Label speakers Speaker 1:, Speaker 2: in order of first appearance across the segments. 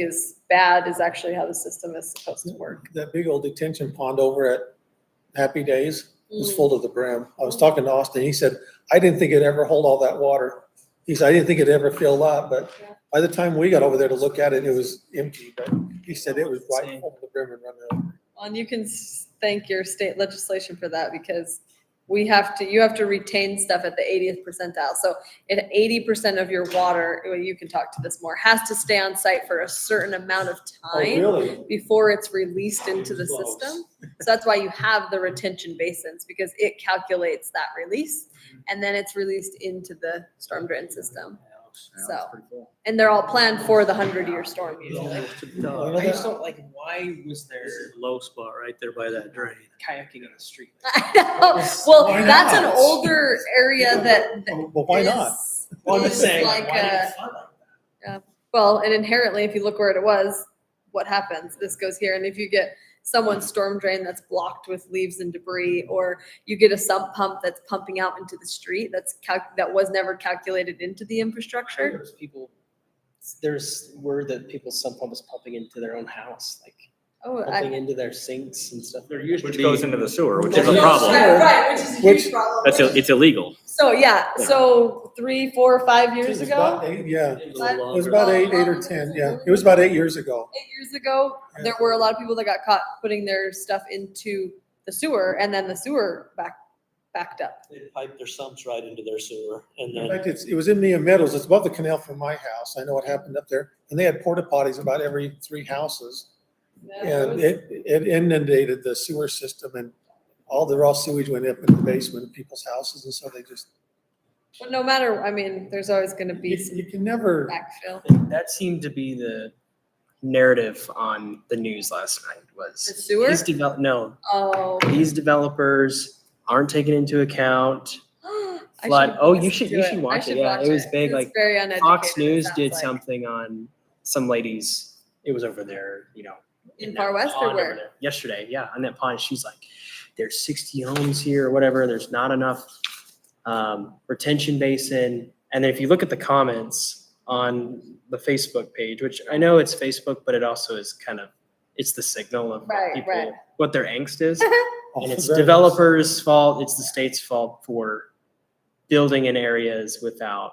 Speaker 1: is bad is actually how the system is supposed to work.
Speaker 2: That big old detention pond over at Happy Days was
Speaker 1: Mm.
Speaker 2: full to the brim. I was talking to Austin, he said, I didn't think it'd ever hold all that water. He said, I didn't think it'd ever fill up, but
Speaker 1: Yeah.
Speaker 2: by the time we got over there to look at it, it was empty, but he said it was right
Speaker 3: Same.
Speaker 2: over the brim and running over.
Speaker 1: And you can s- thank your state legislation for that because we have to, you have to retain stuff at the 80th percentile. So at 80% of your water, well, you can talk to this more, has to stay on site for a certain amount of time
Speaker 2: Oh, really?
Speaker 1: before it's released into the
Speaker 2: Close.
Speaker 1: system. So that's why you have the retention basins because it calculates that release and then it's released into the storm drain system.
Speaker 3: Yeah, that's
Speaker 1: So.
Speaker 3: pretty cool.
Speaker 1: And they're all planned for the 100-year storm usually.
Speaker 3: I just don't like, why was there
Speaker 4: This is a low spot right there by that drain.
Speaker 3: kayaking in the street?
Speaker 1: I know.
Speaker 2: Why
Speaker 1: Oh, Well, that's an
Speaker 2: not?
Speaker 1: older area that. that
Speaker 2: Oh, Well, why not?
Speaker 1: is-
Speaker 3: Well, I'm just
Speaker 1: is
Speaker 3: saying,
Speaker 1: Like,
Speaker 3: why did
Speaker 1: uh,
Speaker 3: it flood like that?
Speaker 1: well, and inherently, if you look where it was, what happens? This goes here, and if you get someone's storm drain that's blocked with leaves and debris, or you get a sump pump that's pumping out into the street, that's calc- that was never calculated into the infrastructure.
Speaker 3: There's people, there's word that people's sump pump is pumping into their own house, like
Speaker 1: Oh, I.
Speaker 3: pumping into their sinks and stuff. There used
Speaker 5: Which goes into the sewer, which
Speaker 2: Which
Speaker 5: is a
Speaker 2: goes-
Speaker 5: problem.
Speaker 1: Right, Right, which is a huge
Speaker 2: Which-
Speaker 1: problem.
Speaker 5: That's, ill- it's illegal.
Speaker 1: So, yeah, so three, four, five years
Speaker 2: It was about
Speaker 1: ago,
Speaker 2: eight- Yeah,
Speaker 3: It
Speaker 1: was
Speaker 2: it was about eight, eight or ten, yeah. It was about eight years ago.
Speaker 1: eight years ago, there were a lot of people that got caught putting their stuff into the sewer and then the sewer back, backed up.
Speaker 6: They pipe their sumps right into their sewer and
Speaker 2: In
Speaker 6: then
Speaker 2: fact, it's, it was in Mia Meadows, it's above the canal from my house, I know what happened up there, and they had porta potties about every three houses. And it, it inundated the sewer system and all the raw sewage went up in the basement of people's houses, and so they just,
Speaker 1: But no matter, I mean, there's always gonna
Speaker 2: you
Speaker 1: be some
Speaker 2: you can never,
Speaker 1: backfill.
Speaker 3: That seemed to be the narrative on the news last night
Speaker 1: The
Speaker 3: was.
Speaker 1: sewer,
Speaker 3: These develop, no,
Speaker 1: oh.
Speaker 3: these developers aren't taken into account.
Speaker 1: I
Speaker 3: Flood.
Speaker 1: should
Speaker 3: Oh, you
Speaker 1: listen
Speaker 3: should-
Speaker 1: to
Speaker 3: you
Speaker 1: I
Speaker 3: should watch it. Yeah, it was big,
Speaker 1: It's
Speaker 3: like,
Speaker 1: Very uneducated.
Speaker 3: Fox
Speaker 1: it
Speaker 3: News
Speaker 1: sounds
Speaker 3: did
Speaker 1: like.
Speaker 3: something on some ladies. It was over there, you know.
Speaker 1: In
Speaker 3: that
Speaker 1: Far West or
Speaker 3: pond over
Speaker 1: where?
Speaker 3: there, Yesterday, yeah, on that pond. She's like, "There's 60 homes here, or whatever. There's not enough um, retention basin." And then if you look at the comments on the Facebook page, which I know it's Facebook, but it also is kind of it's the signal of what
Speaker 1: Right,
Speaker 3: people
Speaker 1: right.
Speaker 3: what their angst is. And it's
Speaker 2: Very-
Speaker 3: developers' fault, it's the state's fault for building in areas without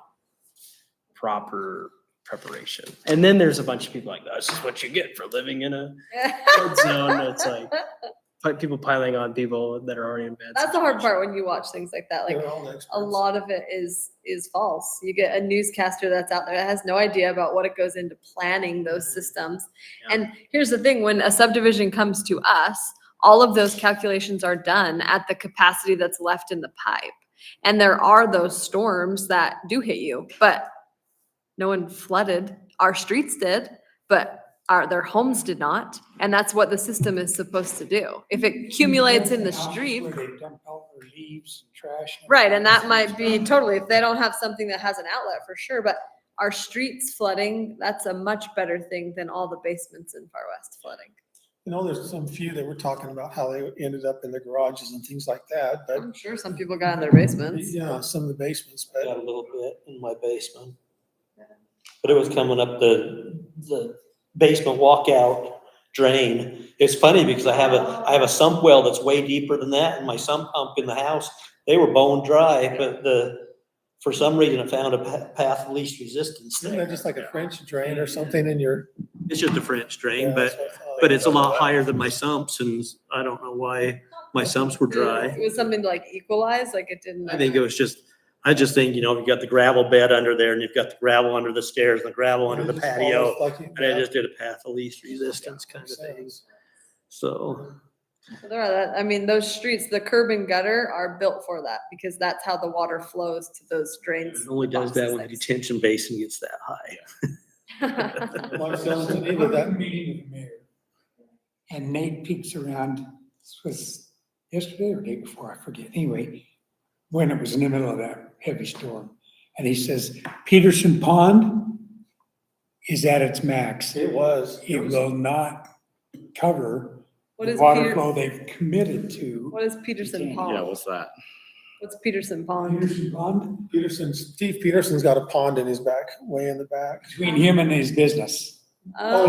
Speaker 3: proper preparation. And then there's a bunch of people like, that's just what you get for living in a flood zone. It's like pi- people piling on people that are already in bad.
Speaker 1: That's the hard
Speaker 3: situations.
Speaker 1: part when you watch things like that, like
Speaker 2: they're all experts.
Speaker 1: a lot of it is is false. You get a newscaster that's out there that has no idea about what it goes into planning those systems.
Speaker 3: Yeah.
Speaker 1: And here's the thing, when a subdivision comes to us, all of those calculations are done at the capacity that's left in the pipe. And there are those storms that do hit you, but no one flooded. Our streets did, but our their homes did not. And that's what the system is supposed to do. If it
Speaker 2: Mm-hmm.
Speaker 1: accumulates in the street,
Speaker 7: Where they dump out their leaves and trash.
Speaker 1: Right, and that might be totally, if they don't have something that has an outlet for sure, but our streets flooding, that's a much better thing than all the basements in Far West flooding.
Speaker 2: You know, there's some few that were talking about how they ended up in the garages and things like that, but,
Speaker 1: I'm sure some people got in their basements.
Speaker 2: yeah, some of the basements,
Speaker 6: I
Speaker 2: but.
Speaker 6: got a little bit in my basement. But it was coming up the, the basement walkout drain. It's funny because I have a, I have a sump well that's way deeper than that and my sump pump in the house, they were bone dry, but the, for some reason it found a pa- path of least resistance
Speaker 2: Isn't that
Speaker 6: there.
Speaker 2: just like a French drain or something in your?
Speaker 6: It's just a French
Speaker 2: Yeah,
Speaker 6: drain,
Speaker 2: that's
Speaker 6: but,
Speaker 2: what I thought.
Speaker 6: but it's a lot higher than my sumps and I don't know why my sumps were dry.
Speaker 1: It was something to like equalize, like it didn't.
Speaker 6: I think it was just, I just think, you know, you've got the gravel bed under there and you've got the gravel under the stairs and the gravel under the
Speaker 2: It just falls
Speaker 6: patio.
Speaker 2: like it-
Speaker 6: And I just did a path of least resistance kind of thing. So
Speaker 1: Well, There are that, I mean, those streets, the curb and gutter are built for that because that's how the water flows to those drains.
Speaker 6: it only does that when the
Speaker 1: boxes.
Speaker 6: detention basin gets that high.
Speaker 2: Marcel's in
Speaker 7: I
Speaker 2: need of
Speaker 7: was
Speaker 2: that.
Speaker 7: at a meeting with the mayor. And Nate peeks around, this was yesterday or day before, I forget, anyway, when it was in the middle of that heavy storm. And he says, Peterson Pond is at its max.
Speaker 2: It was.
Speaker 7: It will not cover
Speaker 1: What
Speaker 7: the
Speaker 1: is
Speaker 7: water
Speaker 1: Peter,
Speaker 7: flow they've committed to.
Speaker 1: what is Peterson
Speaker 7: Yeah,
Speaker 5: Yeah,
Speaker 1: Pond?
Speaker 5: what's that?
Speaker 1: What's Peterson Pond?
Speaker 7: Peterson Pond,
Speaker 2: Peterson's, Steve Peterson's got a pond in his back, way in the back.
Speaker 7: between him and his business.
Speaker 1: Oh,